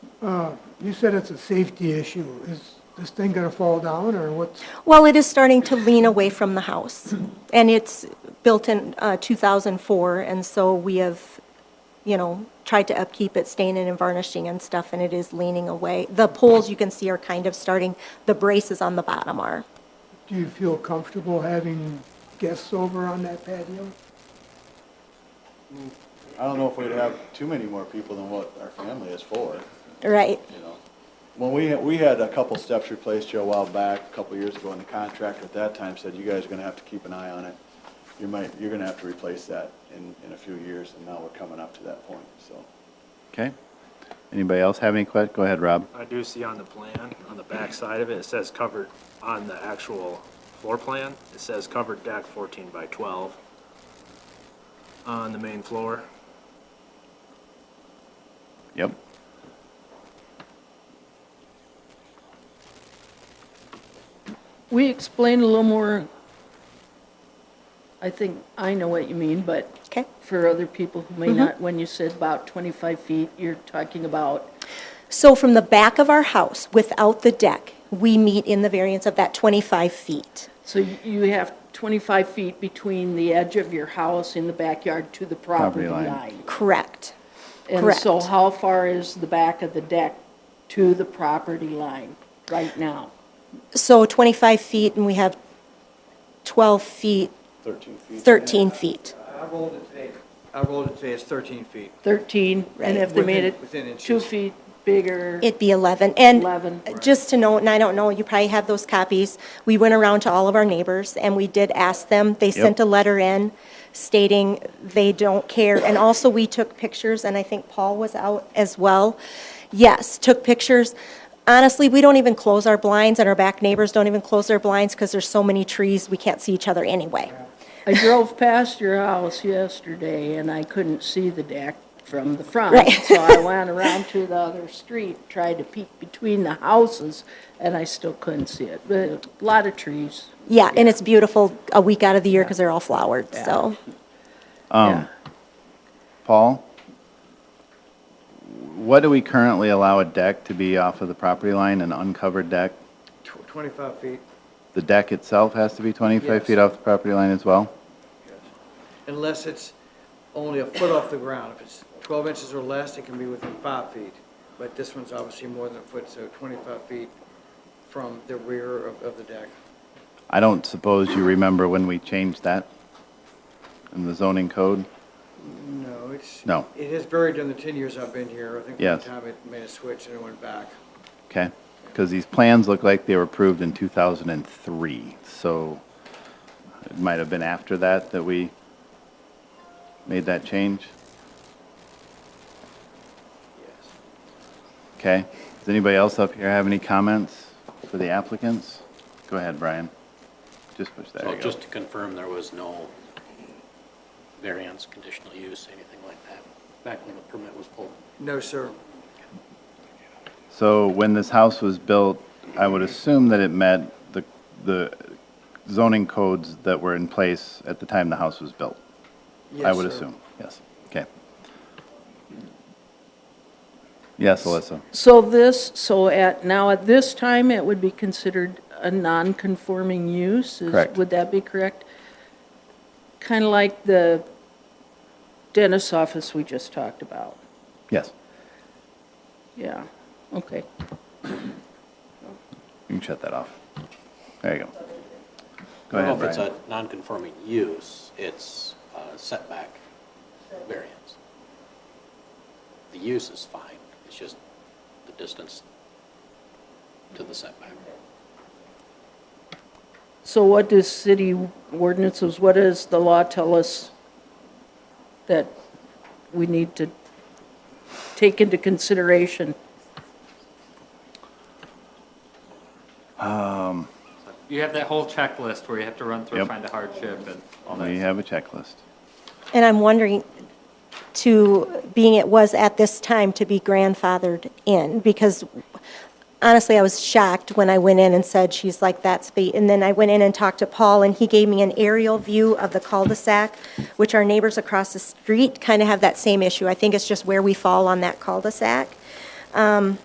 Uh, You said it's a safety issue. Is this thing going to fall down, or what's, Well, it is starting to lean away from the house, and it's built in uh, 2004, and so we have, you know, tried to upkeep it, staining and varnishing and stuff, and it is leaning away. The poles you can see are kind of starting, the braces on the bottom are. do you feel comfortable having guests over on that patio? I don't know if we'd have too many more people than what our family is for, Right, you know. When we, we had a couple steps replaced here a while back, a couple years ago, and the contractor at that time said, you guys are gonna have to keep an eye on it. You might, you're gonna have to replace that in, in a few years, and now we're coming up to that point, so. Okay. Anybody else have any que, go ahead, Rob. I do see on the plan, on the back side of it, it says covered, on the actual floor plan, it says covered deck fourteen by twelve on the main floor. Yep. We explained a little more, I think, I know what you mean, but okay? for other people who Mm-hmm. may not, when you said about 25 feet, you're talking about, So from the back of our house, without the deck, we meet in the variance of that 25 feet. so you- you have 25 feet between the edge of your house in the backyard to the property Property line. line. Correct. And so correct. how far is the back of the deck to the property line right now? So 25 feet, and we have 12 feet, Thirteen feet. 13 feet. I rolled it today, I rolled it today, it's 13 feet. 13, Right. and if they made Within- it within inches. two feet bigger, It'd be 11. And 11? just to note, and I don't know, you probably have those copies, we went around to all of our neighbors, and we did ask them. They sent a letter in stating they don't care. And also, we took pictures, and I think Paul was out as well. Yes, took pictures. Honestly, we don't even close our blinds, and our back neighbors don't even close their blinds because there's so many trees, we can't see each other anyway. I drove past your house yesterday and I couldn't see the deck from the front. Right. So I went around to the other street, tried to peek between the houses, and I still couldn't see it. But a lot of trees. Yeah, and it's beautiful a week out of the year because they're all flowered, so. Um. Paul? What do we currently allow a deck to be off of the property line, an uncovered deck? Tw- 25 feet, The deck itself has to be 25 Yes. feet off the property line as well? unless it's only a foot off the ground. If it's 12 inches or less, it can be within five feet. But this one's obviously more than a foot, so 25 feet from the rear of, of the deck. I don't suppose you remember when we changed that in the zoning code? No, it's. No. It has varied in the 10 years I've been here. I think one Yes. time it made a switch and it went back. Okay, because these plans look like they were approved in 2003, so it might have been after that that we made that change? Okay, does anybody else up here have any comments for the applicants? Go ahead, Brian. Just push that. So just to confirm, there was no variance, conditional use, anything like that, back when the permit was pulled? No, sir. So when this house was built, I would assume that it met the, the zoning codes that were in place at the time the house was built? I Yes, would sir. assume, yes. Okay. Yes, Alyssa. So this, so at, now at this time, it would be considered a non-conforming use? is- Correct. Would that be correct? Kind of like the dentist's office we just talked about. Yes. Yeah, okay. You can shut that off. There you go. Go Well, ahead, if it's Brian. a non-conforming use, it's a setback variance. The use is fine, it's just the distance to the setback. So what does city ordinances, what does the law tell us that we need to take into consideration? You have that whole checklist where you have to run through, and Yep. find a hardship and all that. We have a checklist. And I'm wondering, to, being it was at this time to be grandfathered in, because honestly, I was shocked when I went in and said, she's like, that's the, and then I went in and talked to Paul, and he gave me an aerial view of the cul-de-sac, which our neighbors across the street kind of have that same issue. I think it's just where we fall on that cul-de-sac. Um,